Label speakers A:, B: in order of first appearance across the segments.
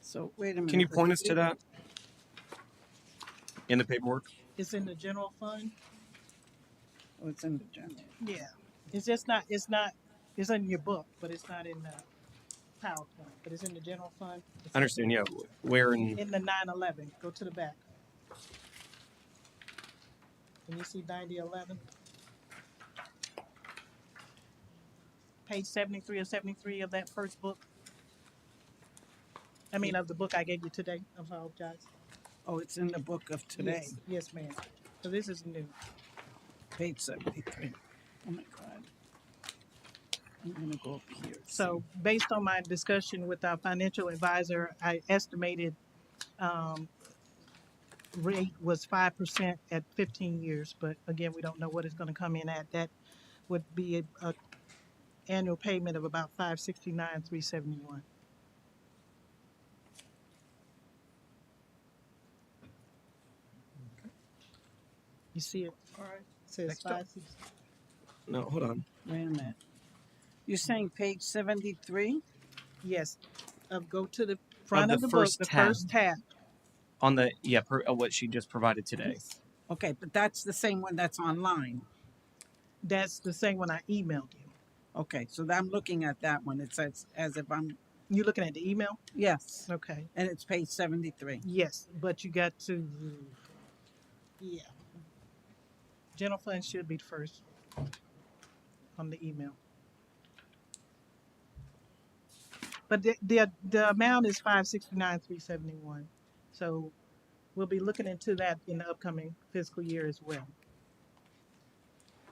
A: So wait a minute.
B: Can you
A: the
B: point us to
A: fee
B: that in the paperwork?
C: It's in the general fund.
A: Oh, it's in the general.
C: Yeah. It's just not, it's not, it's in your book, but it's not in the PowerPoint, but it's in the general fund.
B: I understand, yeah. Where in,
C: In the nine eleven, go to the back. Can you see ninety eleven? Page seventy-three or seventy-three of that first book? I mean, of the book I gave you today, I apologize.
A: Oh, it's in the book of today,
C: Yes, Yes, ma'am. So this is new.
A: page seventy-three. Oh my God. I'm gonna go up here.
C: So based on my discussion with our financial advisor, I estimated, um, rate was five percent at fifteen years, but again, we don't know what it's gonna come in at. That would be a, a annual payment of about five sixty-nine, three seventy-one. You see it? All right. Says
A: Next up.
C: five sixty.
B: no, hold on.
A: Wait a minute. You're saying page seventy-three?
C: Yes, of go to the front of
B: the
C: the book,
B: first
C: the
B: tab.
C: first tab.
B: On the, yeah, per, uh, what she just provided today.
A: Okay, but that's the same one that's online.
C: That's the same one I emailed you.
A: Okay, so I'm looking at that one. It says as if I'm,
C: You looking at the email?
A: yes,
C: Okay.
A: and it's page seventy-three.
C: Yes, but you got to, yeah. General fund should be the first on the email. But the, the, the amount is five sixty-nine, three seventy-one. So we'll be looking into that in the upcoming fiscal year as well.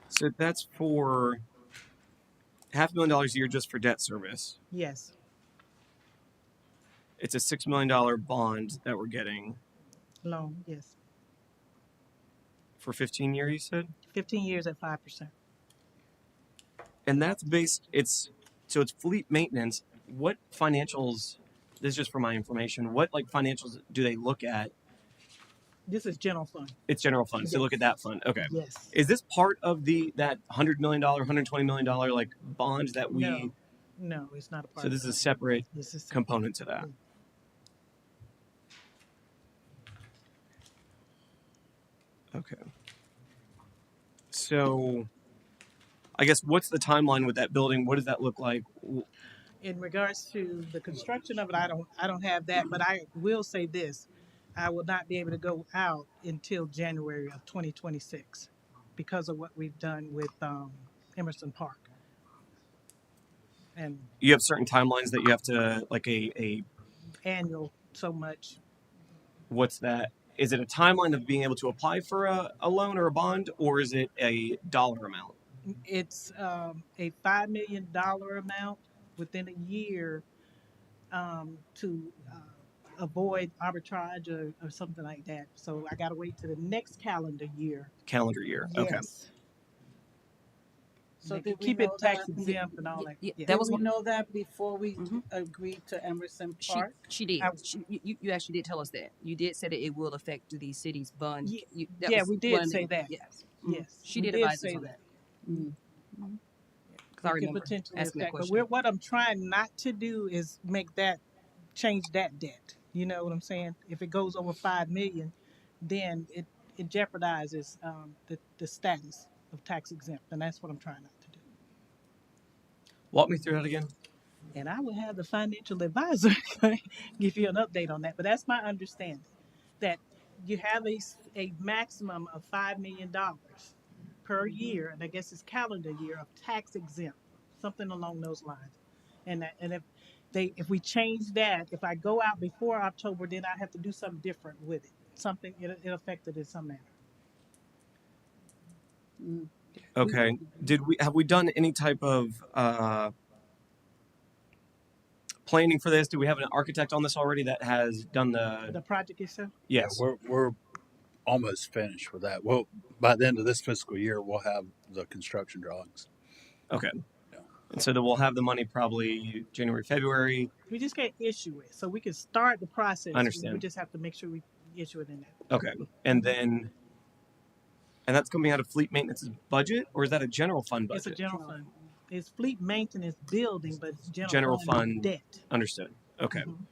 B: So that's for half a million dollars a year just for debt service.
C: Yes,
B: It's a six million dollar bond that we're getting
C: loan, yes.
B: for fifteen years, you said?
C: Fifteen years at five percent.
B: And that's based, it's, so it's fleet maintenance. What financials, this is just for my information, what like financials do they look at?
C: This is general fund,
B: It's general fund, so look at that fund, okay.
C: yes.
B: Is this part of the, that hundred million dollar, hundred twenty million dollar like bond that we?
C: No, no, it's not a part
B: So
C: of
B: this is a
C: that.
B: separate
C: This is,
B: component to that. Okay. So I guess what's the timeline with that building? What does that look like? W-
C: in regards to the construction of it, I don't, I don't have that, but I will say this. I will not be able to go out until January of twenty twenty-six because of what we've done with, um, Emerson Park. And
B: You have certain timelines that you have to like a a
C: annual so much,
B: what's that? Is it a timeline of being able to apply for a, a loan or a bond or is it a dollar amount?
C: It's um, a five million dollar amount within a year um, to uh, avoid arbitrage or, or something like that. So I got to wait to the next calendar year.
B: Calendar year. Okay.
A: So
C: So
A: did we
C: keep it
A: know that-
C: tax exempt and all that.
D: Yeah,
C: Yeah.
D: that
A: Did
D: was
A: we
D: one-
A: know that before we
D: Mhm.
A: agreed to Emerson
D: She,
A: Park?
D: she did.
C: I-
D: She, you- you, you actually did tell us that. You did say that it will affect the city's bond.
C: Ye-
D: You- that
C: yeah,
D: was
C: we did
D: one
C: say that.
D: Yes.
C: yes,
D: Mm-hmm. She
C: we
D: did advise us
C: say
D: on
C: that.
D: Because I
C: It could
D: remember
C: potentially
D: asking that
C: affect, but
D: question.
C: we're- what I'm trying not to do is make that, change that debt. You know what I'm saying? If it goes over five million, then it, it jeopardizes, um, the, the status of tax exempt, and that's what I'm trying not to do.
B: Walk me through that again.
C: And I will have the financial advisor give you an update on that, but that's my understanding, that you have a, s- a maximum of five million dollars per year, and I guess it's calendar year of tax exempt, something along those lines. And that, and if they, if we change that, if I go out before October, then I have to do something different with it, something, it, it affected in some manner.
A: Mm.
B: Okay.
C: Mm-hmm.
B: Did we have we done any type of uh, planning for this? Do we have an architect on this already that has done the?
C: The project itself,
E: Yeah,
B: Yes.
E: we're we're almost finished with that. Well, by the end of this fiscal year, we'll have the construction drawings.
B: And so that we'll have the money probably January, February.
C: we just can't issue it, so we can start the process. We
B: Understand.
C: just have to make sure we issue it in that.
B: Okay, and then, and that's coming out of fleet maintenance budget, or is that a general fund budget?
C: It's a general fund. It's fleet maintenance building, but it's general.
B: General fund.
C: Debt.
B: Understood. Okay,
C: Mhm.